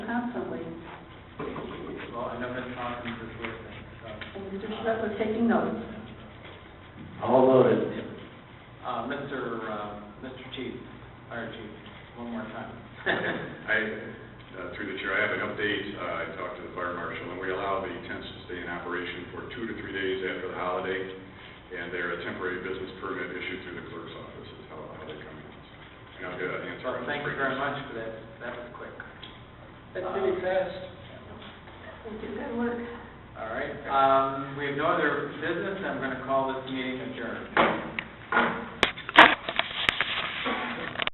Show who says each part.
Speaker 1: I've been talking to this witness, so.
Speaker 2: Oh,
Speaker 3: And Mr. Schmidt was taking notes.
Speaker 4: All voted.
Speaker 1: Uh, Mr., uh, Mr. Chief, Fire Chief, one more time.
Speaker 5: I, uh, through the chair, I have an update. Uh, I talked to the fire marshal, and we allow the tents to stay in operation for two to three days after the holiday, and they're a temporary business permit issued through the clerk's office, is how how they come in. And I'll get an answer.
Speaker 1: Well, Thank you very much for that, that was quick. Um,
Speaker 2: That's really fast.
Speaker 3: Thank you, good work.
Speaker 1: All right, um, we have no other business, I'm gonna call this meeting adjourned.